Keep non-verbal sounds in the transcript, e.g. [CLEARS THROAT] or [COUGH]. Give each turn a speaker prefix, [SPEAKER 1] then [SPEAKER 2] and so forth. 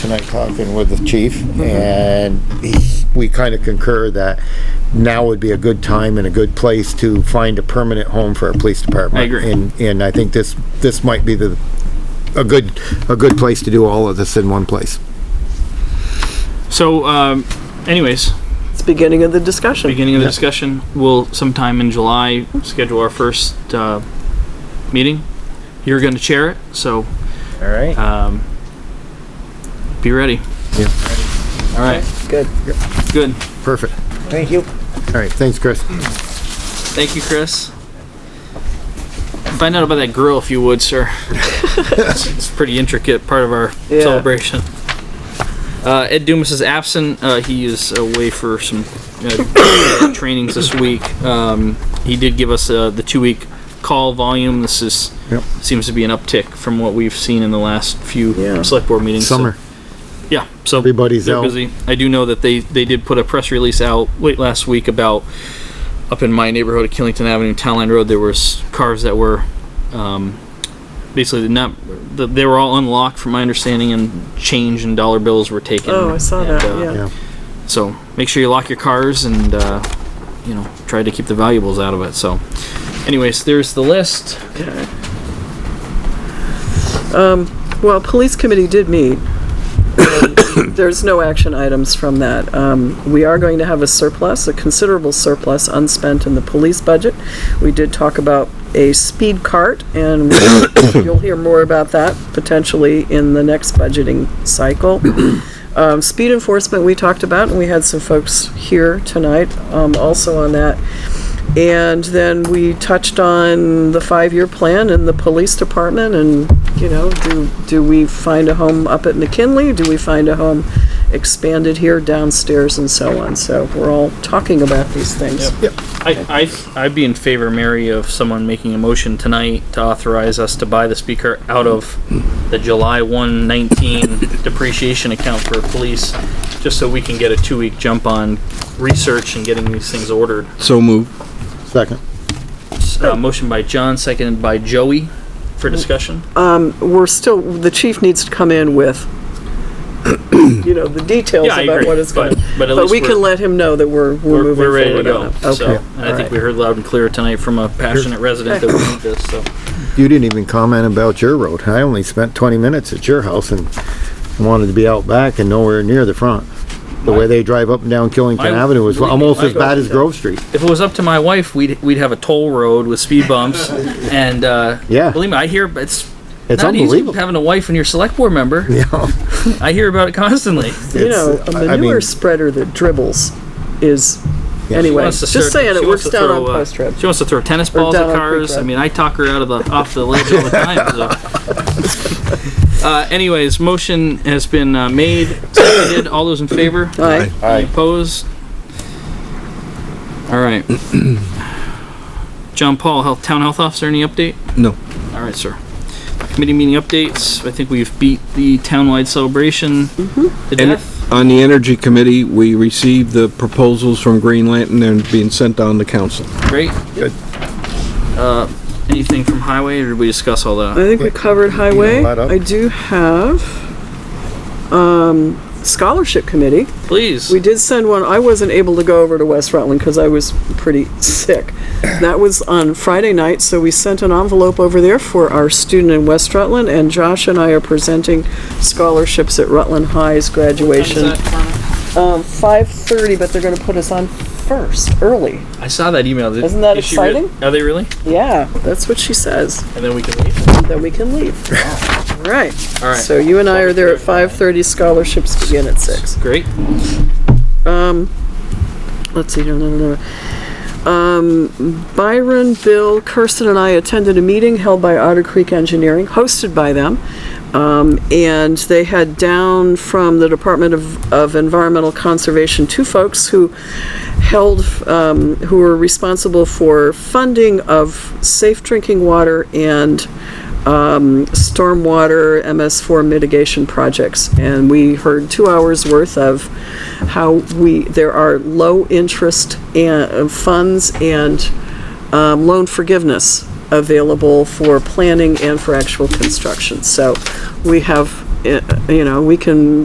[SPEAKER 1] tonight talking with the chief, and he- we kind of concur that now would be a good time and a good place to find a permanent home for our police department.
[SPEAKER 2] I agree.
[SPEAKER 1] And, and I think this, this might be the, a good, a good place to do all of this in one place.
[SPEAKER 2] So, um, anyways,
[SPEAKER 3] It's beginning of the discussion.
[SPEAKER 2] beginning of the discussion, we'll sometime in July schedule our first uh, meeting. You're going to chair it, so
[SPEAKER 4] All right.
[SPEAKER 2] um, be ready.
[SPEAKER 1] Yeah.
[SPEAKER 2] All right.
[SPEAKER 3] Good.
[SPEAKER 2] Good.
[SPEAKER 1] Perfect.
[SPEAKER 4] Thank you.
[SPEAKER 1] All right, thanks, Chris.
[SPEAKER 2] Thank you, Chris. Find out about that grill if you would, sir. it's, it's a pretty intricate part of our
[SPEAKER 3] Yeah.
[SPEAKER 2] celebration. Uh, Ed Dumas is absent. Uh, he is away for some uh, [COUGHS] trainings this week. Um, he did give us uh, the two-week call volume. This is
[SPEAKER 1] Yep.
[SPEAKER 2] seems to be an uptick from what we've seen in the last few
[SPEAKER 3] Yeah.
[SPEAKER 2] select board meetings. So-
[SPEAKER 1] Summer,
[SPEAKER 2] yeah, so
[SPEAKER 1] Everybody's
[SPEAKER 2] they're
[SPEAKER 1] out.
[SPEAKER 2] busy. I do know that they they did put a press release out late last week about up in my neighborhood of Killington Avenue, Town Line Road. There was cars that were um, basically not th- they were all unlocked, from my understanding, and change and dollar bills were taken.
[SPEAKER 3] Oh, I saw that,
[SPEAKER 2] uh,
[SPEAKER 3] yeah.
[SPEAKER 1] yeah.
[SPEAKER 2] So make sure you lock your cars and uh, you know try to keep the valuables out of it. So, anyways, there's the list.
[SPEAKER 3] Well, police committee did meet. [COUGHS] There's no action items from that. Um, we are going to have a surplus, a considerable surplus unspent in the police budget. We did talk about a speed cart and [COUGHS] you'll hear more about that potentially in the next budgeting cycle. Um, speed enforcement, we talked about and we had some folks here tonight, um, also on that. And then we touched on the five-year plan and the police department and, you know, do, do we find a home up at McKinley? Do we find a home expanded here downstairs and so on? So we're all talking about these things.
[SPEAKER 2] I, I, I'd be in favor, Mary, of someone making a motion tonight to authorize us to buy the speaker out of the July one
[SPEAKER 3] [LAUGHS]
[SPEAKER 2] nineteen depreciation account for police, just so we can get a two-week jump on research and getting these things ordered.
[SPEAKER 5] So moved.
[SPEAKER 1] Second.
[SPEAKER 2] Uh, motion by John, seconded by Joey for discussion.
[SPEAKER 3] We're still, the chief needs to come in with, you know, the details
[SPEAKER 2] Yeah, I
[SPEAKER 3] about
[SPEAKER 2] agree,
[SPEAKER 3] what it's gonna.
[SPEAKER 2] but- but at
[SPEAKER 3] But
[SPEAKER 2] least
[SPEAKER 3] we can
[SPEAKER 2] we're-
[SPEAKER 3] let him know that we're, we're
[SPEAKER 2] We're,
[SPEAKER 3] moving
[SPEAKER 2] we're
[SPEAKER 3] forward
[SPEAKER 2] ready to go.
[SPEAKER 3] on it.
[SPEAKER 2] So,
[SPEAKER 3] Okay.
[SPEAKER 2] and I think
[SPEAKER 3] Alright.
[SPEAKER 2] we heard loud and clear tonight from a passionate resident that we need this, so.
[SPEAKER 1] You didn't even comment about your road. I only spent twenty minutes at your house and wanted to be out back and nowhere near the front. The way they drive up and down Killington
[SPEAKER 2] I-
[SPEAKER 1] Avenue is almost as bad as Grove Street.
[SPEAKER 2] If it was up to my wife, we'd, we'd have a toll road with speed
[SPEAKER 3] [LAUGHS]
[SPEAKER 2] bumps and, uh,
[SPEAKER 1] Yeah.
[SPEAKER 2] believe me, I hear, it's
[SPEAKER 1] It's
[SPEAKER 2] not easy
[SPEAKER 1] unbelievable.
[SPEAKER 2] having a wife and your select board member.
[SPEAKER 1] Yeah.
[SPEAKER 2] I hear about it
[SPEAKER 3] [LAUGHS]
[SPEAKER 2] constantly.
[SPEAKER 3] You
[SPEAKER 1] It's-
[SPEAKER 3] know, a
[SPEAKER 1] I- I mean-
[SPEAKER 3] manure spreader that dribbles is, anyway,
[SPEAKER 2] Wants to
[SPEAKER 3] just
[SPEAKER 2] throw-
[SPEAKER 3] saying
[SPEAKER 2] she wants
[SPEAKER 3] it works
[SPEAKER 2] to
[SPEAKER 3] down
[SPEAKER 2] throw,
[SPEAKER 3] on
[SPEAKER 2] uh,
[SPEAKER 3] Post Road.
[SPEAKER 2] She wants to throw tennis balls
[SPEAKER 3] down
[SPEAKER 2] at
[SPEAKER 3] on Creek
[SPEAKER 2] cars. I
[SPEAKER 3] Road.
[SPEAKER 2] mean, I talk her out of the off the ledge all
[SPEAKER 3] [LAUGHS]
[SPEAKER 2] the time. So. Uh, anyways, motion has been uh, made. Seconded. All those in favor?
[SPEAKER 3] Aye.
[SPEAKER 2] Any Opposed? All right. [CLEARS THROAT] John Paul, health, town health officer, any update?
[SPEAKER 5] No.
[SPEAKER 2] All right, sir. Committee meeting updates. I think we've beat the townwide celebration
[SPEAKER 3] Mm-hmm.
[SPEAKER 2] to
[SPEAKER 5] And-
[SPEAKER 2] death.
[SPEAKER 5] On the Energy Committee, we received the proposals from Green Lantern and being sent on to council.
[SPEAKER 2] Great.
[SPEAKER 1] Good.
[SPEAKER 2] Uh, anything from highway, or did we discuss all that?
[SPEAKER 3] I think we covered highway.
[SPEAKER 1] that up?
[SPEAKER 3] I do have, um, scholarship committee.
[SPEAKER 2] Please.
[SPEAKER 3] We did send one, I wasn't able to go over to West Rutland because I was pretty sick. That was on Friday night, so we sent an envelope over there for our student in West Rutland, and Josh and I are presenting scholarships at Rutland High's graduation. Um, five thirty, but they're gonna put us on first, early.
[SPEAKER 2] I saw that email. Did-
[SPEAKER 3] Isn't that
[SPEAKER 2] is she re-
[SPEAKER 3] exciting?
[SPEAKER 2] Are they really?
[SPEAKER 3] Yeah, that's what she says.
[SPEAKER 2] And then we can leave.
[SPEAKER 3] then we can leave. All right.
[SPEAKER 2] All right.
[SPEAKER 3] So you and I are there at 5:30, scholarships begin at 6.
[SPEAKER 2] Great.
[SPEAKER 3] Let's see, no, no, no, no. Um, Byron, Bill, Kirsten, and I attended a meeting held by Otter Creek Engineering, hosted by them. Um, and they had down from the Department of, of Environmental Conservation, two folks who held, um, who were responsible for funding of safe drinking water and stormwater MS4 mitigation projects. And we heard two hours worth of how we, there are low interest and, uh, funds and um, loan forgiveness available for planning and for actual construction. So we have, uh, you know, we can